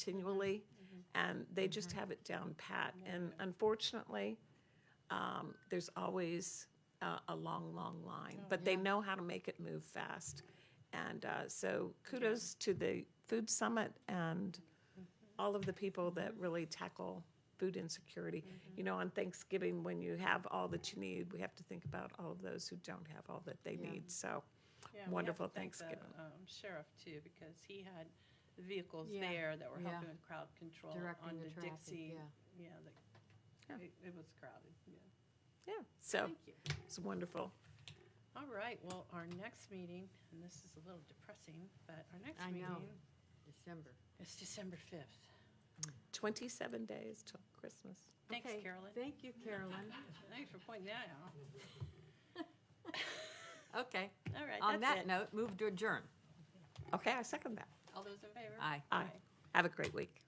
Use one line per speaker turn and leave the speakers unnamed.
continually, and they just
Mm-hmm.
have it down pat. And unfortunately, um, there's always uh, a long, long line,
Oh,
but they know how to make it move fast. And uh, so kudos to the Food Summit and
Mm-hmm.
all of the people that really tackle food insecurity.
Mm-hmm.
You know, on Thanksgiving, when you have all that you need, we have to think about all of those who don't have all that they need. So,
Yeah, we have to
Wonderful
thank the,
Thanksgiving.
um, Sheriff too, because he had the vehicles
Yeah,
there that were
yeah.
helping with crowd control on
Directing the
the
traffic,
Dixie.
yeah.
Yeah,
Yeah.
the, it, it was crowded, yeah.
yeah, so
Thank you.
it's wonderful.
All right, well, our next meeting, and this is a little depressing, but our next
I know.
meeting
December.
is December fifth.
27 days till Christmas.
Thanks,
Okay,
Carolyn.
Thank you, Carolyn.
Thanks for pointing that out.
Okay,
All right,
on
that's
that
it.
note, move to adjourn.
Okay, I second that.
All those in favor?
Aye.
Aye. Have a great week.